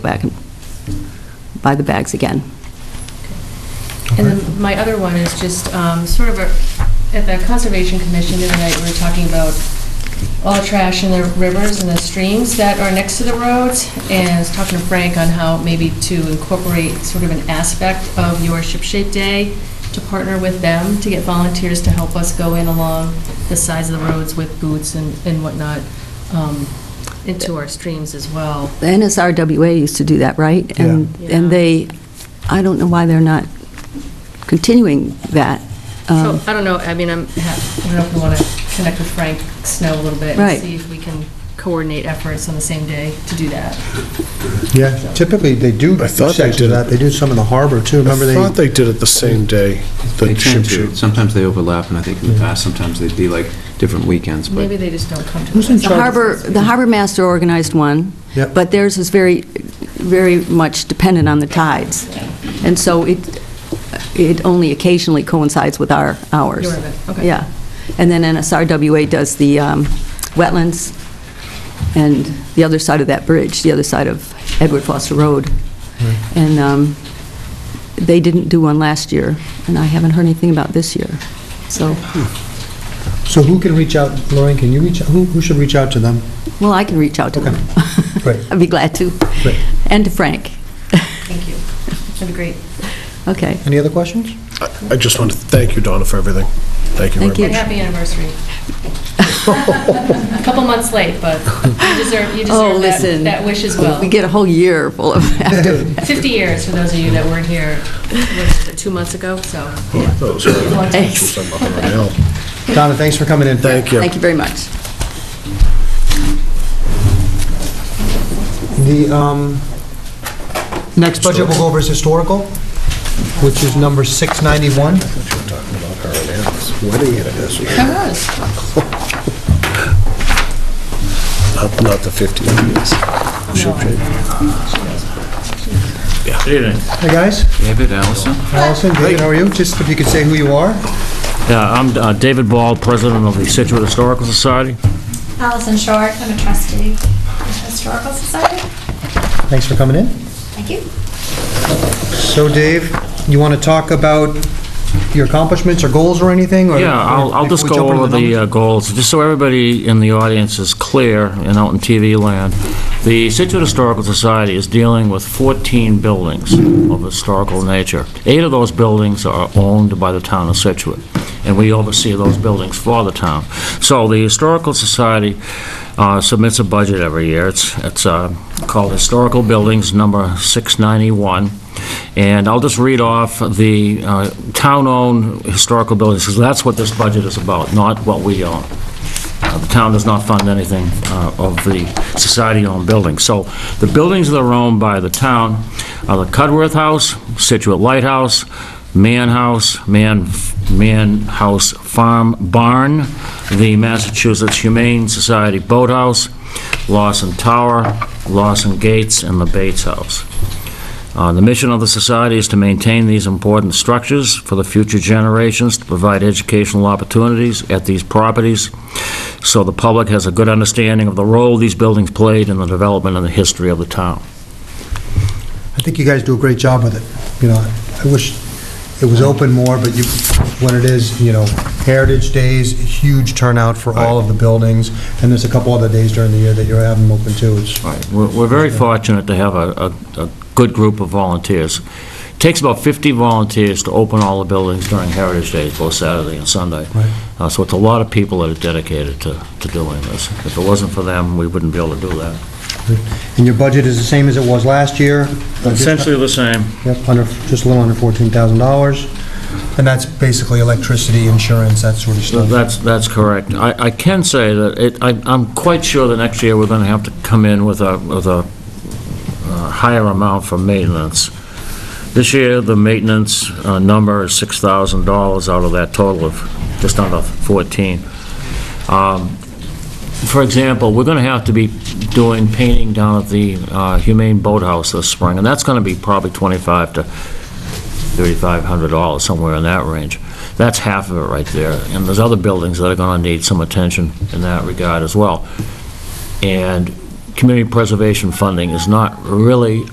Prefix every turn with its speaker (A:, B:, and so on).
A: go back and buy the bags again.
B: And then my other one is just um, sort of a, at the Conservation Commission the other night, we were talking about all trash in the rivers and the streams that are next to the roads, and I was talking to Frank on how maybe to incorporate sort of an aspect of your Ship Shape Day to partner with them, to get volunteers to help us go in along the sides of the roads with boots and and whatnot, um, into our streams as well.
A: The NSRWA used to do that, right? And,
B: Yeah.
A: and they, I don't know why they're not continuing that.
B: So,
A: Um,
B: I don't know, I mean, I'm, I don't know if we want to connect with Frank Snow a little bit
A: Right.
B: and see if we can coordinate efforts on the same day to do that.
C: Yeah, typically, they do
D: I thought they
C: sections of
D: did
C: that,
D: it.
C: they do some in the harbor, too, remember
D: I thought
C: they,
D: they did it the same day,
E: They
D: the
E: tend
D: chip
E: to.
D: shoot.
E: Sometimes they overlap, and I think in the past, sometimes they'd be like different weekends, but...
B: Maybe they just don't come to.
C: Who's in
B: us.
A: The harbor, the harbor master organized one,
C: Yep.
A: but theirs is very, very much dependent on the tides. And so it, it only occasionally coincides with our hours.
B: Your event, okay.
A: Yeah. And then NSRWA does the um, wetlands and the other side of that bridge, the other side of Edward Foster Road.
C: Hmm.
A: And um, they didn't do one last year, and I haven't heard anything about this year. So,
C: so who can reach out, Lorraine, can you reach, out? who, who should reach out to them?
A: well, I can reach out to them.
C: Great.
A: I'd be glad to.
C: Great.
A: And to Frank.
B: Thank you. That'd be great.
A: Okay.
C: Any other questions?
D: I- I just want to thank you, Donna, for everything. Thank you
A: Thank
D: very
B: And
D: much.
B: happy anniversary. A couple months late, but you deserve, you
A: Oh,
B: deserve that,
A: listen.
B: that wish as well.
A: We get a whole year full of after.
B: 50 years, for those of you that weren't here, what, two months ago, so.
D: Those are-
A: Thanks.
D: I'm up around hell.
C: Donna, thanks for coming in.
D: Thank you.
A: Thank you very much.
C: The um, next budget we'll go over is historical, which is number 691.
D: Wedding anniversary,
B: That was.
D: not not the 50 years. Chip shape.
C: Hey, guys,
F: David Allison.
C: Allison, David, how are you? Just if you could say who you are.
F: Yeah, I'm uh, David Ball, president of the Situate Historical Society.
G: Allison Short, I'm a trustee of the Historical Society.
C: Thanks for coming in.
G: Thank you.
C: So Dave, you want to talk about your accomplishments or goals or anything? or-
F: Yeah, I'll I'll just
C: Before we
F: go
C: jump into
F: over the
C: numbers?
F: uh, goals, just so everybody in the audience is clear and out in TV land. The Situate Historical Society is dealing with 14 buildings of historical nature. Eight of those buildings are owned by the town of Situate, and we oversee those buildings for the town. So the Historical Society uh, submits a budget every year. It's it's uh, called Historical Buildings Number 691. And I'll just read off the uh, town-owned historical buildings, because that's what this budget is about, not what we own. Uh, The town does not fund anything uh, of the society-owned buildings. So the buildings that are owned by the town are the Cudworth House, Situate Lighthouse, Mann House, Mann, Mann House Farm Barn, the Massachusetts Humane Society Boathouse, Lawson Tower, Lawson Gates, and the Bates House. Uh, The mission of the society is to maintain these important structures for the future generations, to provide educational opportunities at these properties, so the public has a good understanding of the role these buildings played in the development and the history of the town.
C: I think you guys do a great job with it. You know, I wish it was open more, but you, when it is, you know, Heritage Days, huge turnout for all of the buildings, and there's a couple other days during the year that you're having them open too. It's-
F: We're we're very fortunate to have a- a a good group of volunteers. Takes about 50 volunteers to open all the buildings during Heritage Days, both Saturday and Sunday.
C: Right.
F: Uh, So it's a lot of people that are dedicated to to doing this. If it wasn't for them, we wouldn't be able to do that.
C: And your budget is the same as it was last year?
F: Essentially the same.
C: Yep, under, just a little under $14,000. And that's basically electricity, insurance, that sort of
F: No,
C: stuff.
F: That's, that's correct. I, I can say that it, I, I'm quite sure that next year we're gonna have to come in with a, with a uh, higher amount for maintenance. This year, the maintenance uh, number is six thousand dollars out of that total of just under fourteen. Um, For example, we're gonna have to be doing painting down at the uh, Humane Boathouse this spring, and that's gonna be probably twenty-five to $3,500, somewhere in that range. That's half of it right there. And there's other buildings that are going to need some attention in that regard as well. And community preservation funding is not really